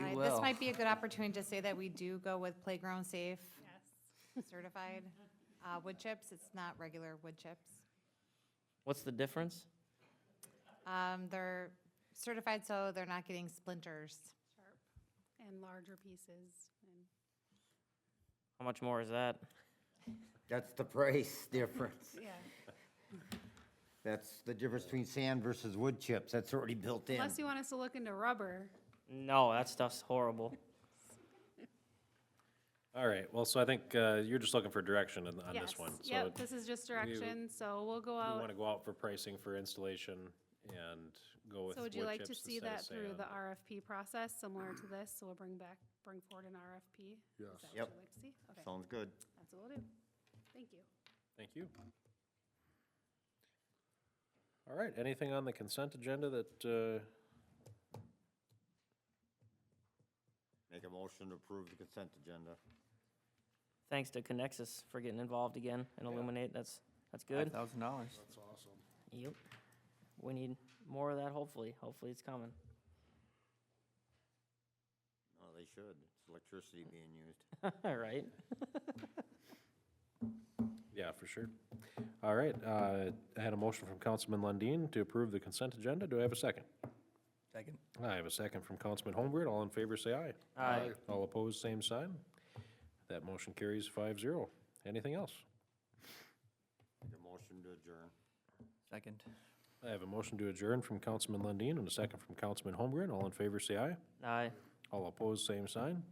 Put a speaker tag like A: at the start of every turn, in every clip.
A: might be a good opportunity to say that we do go with playground safe. Certified, uh, wood chips, it's not regular wood chips.
B: What's the difference?
A: Um, they're certified, so they're not getting splinters.
C: sharp and larger pieces and
B: How much more is that?
D: That's the price difference.
C: yeah
D: That's the difference between sand versus wood chips. That's already built in.
C: unless you want us to look into rubber
B: No, that stuff's horrible.
E: All right, well, so I think uh, you're just looking for direction on on this
C: Yes.
E: one. So
C: yep this is just direction so we'll go
E: We want
C: out
E: to go out for pricing for installation and go with
C: so would
E: wood
C: you like to
E: chips
C: see
E: instead of
C: that through the
E: sand.
C: rfp process similar to this so we'll bring back bring forward an rfp yes
D: Yep.
C: you'd like to see okay
D: Sounds good.
C: that's what we'll do thank you
E: Thank you. All right, anything on the consent agenda that, uh,
D: Make a motion to approve the consent agenda.
B: Thanks to Conexus for getting involved again and Illuminate. That's, that's good.
F: Thousand dollars.
B: Yep. We need more of that, hopefully. Hopefully it's coming.
D: Oh, they should. It's electricity being used.
B: All right.
E: yeah, for sure. All right, uh, I had a motion from Councilman Lundin to approve the consent agenda. Do I have a second?
F: Second.
E: I have a second from Councilman Holmgren. All in favor, say aye.
B: Aye.
E: All opposed, same sign. That motion carries five zero. Anything else?
D: Make a motion to adjourn.
F: Second.
E: I have a motion to adjourn from Councilman Lundin and a second from Councilman Holmgren. All in favor, say aye.
B: Aye.
E: All opposed, same sign.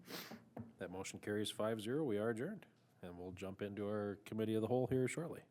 E: That motion carries five zero. We are adjourned. And we'll jump into our committee of the whole here shortly.